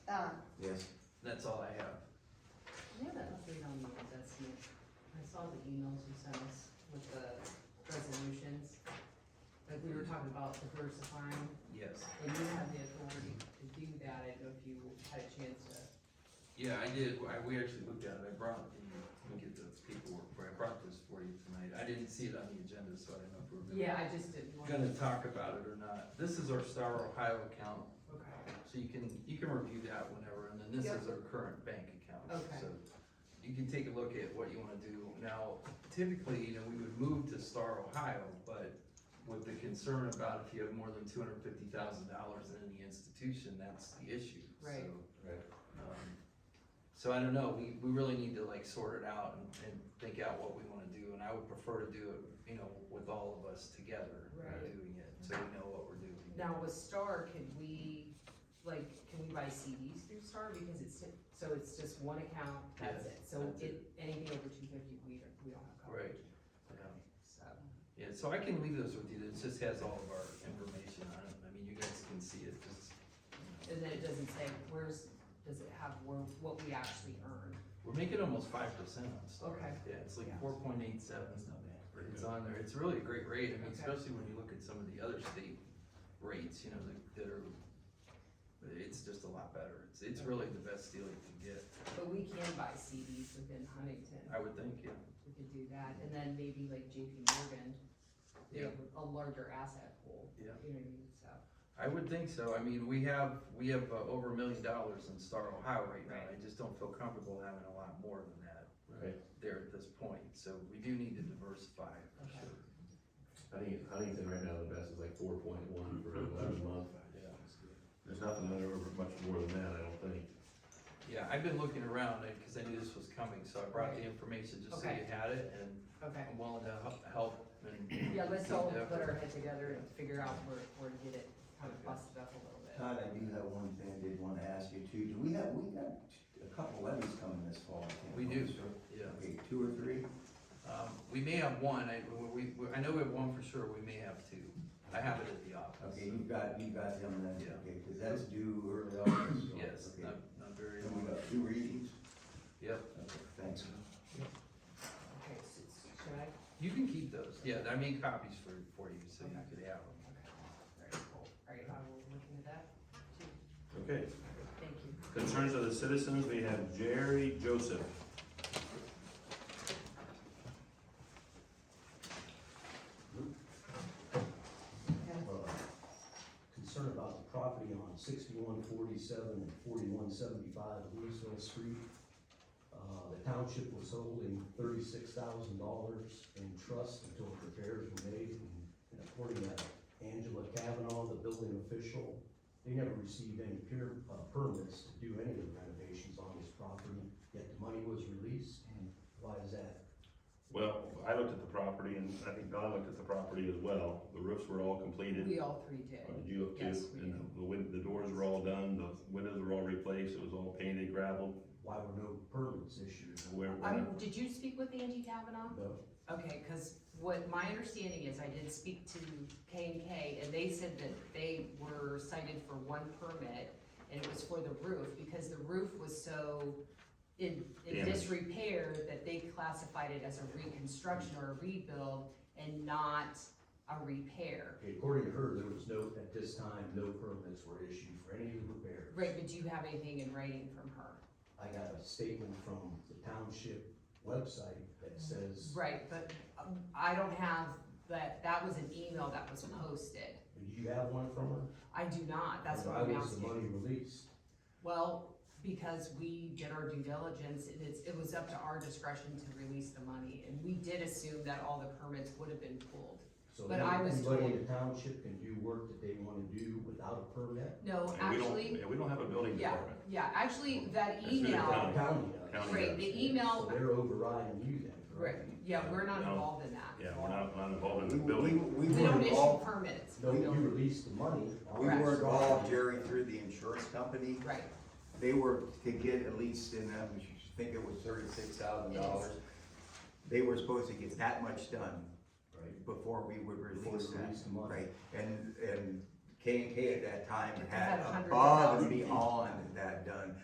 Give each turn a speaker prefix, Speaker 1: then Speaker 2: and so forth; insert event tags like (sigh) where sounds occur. Speaker 1: Yes.
Speaker 2: That's all I have.
Speaker 3: Yeah, that must be on the that's me. I saw the emails you sent us with the resolutions. Like we were talking about diversifying,
Speaker 2: Yes.
Speaker 3: and you have the authority to do that, I don't know if you had a chance to.
Speaker 2: Yeah, I did, I, we actually looked at it, I brought, the- let me get the paperwork, for I brought this for you tonight, I didn't see it on the agenda, so I didn't know if we were gonna-
Speaker 3: Yeah, I just didn't want.
Speaker 2: gonna talk about it or not. This is our Star Ohio account,
Speaker 3: Okay,
Speaker 2: so you can, you can review that whenever, and then this is our current bank account.
Speaker 3: Okay.
Speaker 2: So You can take a look at what you wanna do. Now, typically, you know, we would move to Star Ohio, but with the concern about if you have more than two hundred fifty thousand dollars in any institution, that's the issue.
Speaker 3: Right.
Speaker 2: So,
Speaker 1: Right.
Speaker 2: um, So I don't know, we, we really need to like sort it out and, and think out what we wanna do, and I would prefer to do it, you know, with all of us together.
Speaker 3: Right.
Speaker 2: Doing it, so we know what we're doing.
Speaker 3: now with Star, can we, like, can we buy CDs through Star, because it's, so it's just one account, that's
Speaker 2: Yes,
Speaker 3: it, so
Speaker 2: that's
Speaker 3: it, anything over two fifty, we don't, we don't have coverage.
Speaker 2: Yeah.
Speaker 3: Okay, So,
Speaker 2: Yeah, so I can leave those with you, it just has all of our information on it, I mean, you guys can see it, just,
Speaker 3: and then it doesn't say where's, does it have where, what we actually earn?
Speaker 2: we're making almost five percent on Star.
Speaker 3: Okay.
Speaker 2: Yeah, it's like
Speaker 3: Yeah.
Speaker 2: four point eight seven,
Speaker 1: Pretty
Speaker 2: it's
Speaker 1: good.
Speaker 2: on there, it's really a great rate, I mean,
Speaker 3: Okay.
Speaker 2: especially when you look at some of the other state rates, you know, that- that are, it's just a lot better, it's, it's really the best deal you can get,
Speaker 3: But we can buy CDs within Huntington,
Speaker 2: I would think, yeah.
Speaker 3: we could do that, and then maybe like JP Morgan, you know, with a larger asset pool.
Speaker 2: Yeah.
Speaker 3: You know what I mean, so,
Speaker 2: I would think so. I mean, we have, we have uh, over a million dollars in Star Ohio right now. I just don't feel comfortable having a lot more than that
Speaker 1: Right.
Speaker 2: there at this point. So we do need to diversify for
Speaker 3: Okay.
Speaker 2: sure.
Speaker 1: I think it- Huntington right now, the best is like four point one for eleven month.
Speaker 2: Yeah.
Speaker 1: There's nothing that ever much more than that, I don't think.
Speaker 2: Yeah, I've been looking around because I knew this was coming, so I brought the information just so you
Speaker 3: Okay.
Speaker 2: had it and
Speaker 3: okay.
Speaker 2: I'm willing to hel- help and.
Speaker 3: (clears throat) Yeah, let's
Speaker 2: lead
Speaker 3: all
Speaker 2: the effort.
Speaker 3: put our head together and figure out where, where to get it kind of busted up a little bit.
Speaker 4: Todd, I do have one thing I did want to ask you too. Do we have, we got a couple levies coming this fall. I can't
Speaker 2: We
Speaker 4: remember,
Speaker 2: do.
Speaker 4: sir.
Speaker 2: Yeah.
Speaker 4: Okay, two or three?
Speaker 2: Um, we may have one. I, we, we- I know we have one for sure. We may have two. I have it at the office.
Speaker 4: Okay, you've got, you've got them then,
Speaker 2: Yeah.
Speaker 4: okay, because that's due early August. so,
Speaker 2: (clears throat) Yes,
Speaker 4: okay.
Speaker 2: not, not very.
Speaker 4: And we got two readings?
Speaker 2: Yep.
Speaker 4: Okay, thanks.
Speaker 3: Okay, so, should I?
Speaker 2: You can keep those, yeah, I made copies for, for you, so you
Speaker 3: Okay.
Speaker 2: could have them.
Speaker 3: Okay, very cool. All right, I will look into that.
Speaker 5: Okay,
Speaker 3: Thank you.
Speaker 5: concerns of the citizens, we have Jerry Joseph.
Speaker 6: have a uh, concern about the property on sixty-one forty-seven and forty-one seventy-five Louisville Street. Uh, the township was holding thirty-six thousand dollars in trust until repairs were made, and- and according to Angela Kavanaugh, the building official, they never received any peer, uh, permits to do any of the renovations on this property, yet the money was released, why is that?
Speaker 5: Well, I looked at the property and I think Don looked at the property as well. The roofs were all completed.
Speaker 3: We all three did.
Speaker 5: Or Did you look too?
Speaker 3: Yes, we
Speaker 5: And the win, the doors were all done, the windows were all replaced, it was all painted, gravelled.
Speaker 6: Why were no permits issued?
Speaker 5: Where,
Speaker 3: Um, did you speak with Angie Kavanaugh?
Speaker 6: No.
Speaker 3: Okay, cause what my understanding is, I did speak to K and K, and they said that they were cited for one permit, and it was for the roof, because the roof was so in, in
Speaker 5: Damaged.
Speaker 3: disrepair that they classified it as a reconstruction or a rebuild and not a repair.
Speaker 6: Okay, According to her, there was no, at this time, no permits were issued for any of the repairs.
Speaker 3: Right, but do you have anything in writing from her?
Speaker 6: I got a statement from the township website that says,
Speaker 3: Right, but um, I don't have, that, that was an email that was posted.
Speaker 6: do you have one from her?
Speaker 3: I do not, that's what
Speaker 6: Why
Speaker 3: I'm
Speaker 6: was the
Speaker 3: asking.
Speaker 6: money released?
Speaker 3: Well, because we did our due diligence, and it's, it was up to our discretion to release the money, and we did assume that all the permits would have been pulled.
Speaker 6: So
Speaker 3: But I was
Speaker 6: Anybody in
Speaker 3: told-
Speaker 6: the township can do work that they wanna do without a permit?
Speaker 3: No,
Speaker 5: and we don't,
Speaker 3: actually,
Speaker 5: and we don't have a building
Speaker 3: yeah,
Speaker 5: department.
Speaker 3: yeah, actually, that
Speaker 5: It's through the
Speaker 3: email,
Speaker 5: county.
Speaker 6: The County does.
Speaker 5: County
Speaker 3: Right, does. the email-
Speaker 6: So they're overriding you then,
Speaker 3: right,
Speaker 6: correct?
Speaker 3: yeah, we're not
Speaker 5: No.
Speaker 3: involved in that.
Speaker 5: Yeah, we're not, not involved in the
Speaker 4: We-
Speaker 5: building.
Speaker 4: We, we
Speaker 3: We
Speaker 4: were
Speaker 3: don't issue
Speaker 4: involved,
Speaker 3: permits,
Speaker 6: No, you released the money.
Speaker 4: we
Speaker 3: Correct.
Speaker 4: were involved, Jerry, through the insurance company.
Speaker 3: right,
Speaker 4: They were to get at least, and I was- I think it was thirty-six thousand dollars. They were supposed to get that much done
Speaker 6: Right.
Speaker 4: before we would
Speaker 6: Before
Speaker 4: release
Speaker 6: we
Speaker 4: that.
Speaker 6: release the money.
Speaker 4: Right, and, and K and K at that time
Speaker 3: Had
Speaker 4: had
Speaker 3: a hundred
Speaker 4: above and
Speaker 3: thousand.
Speaker 4: beyond that done.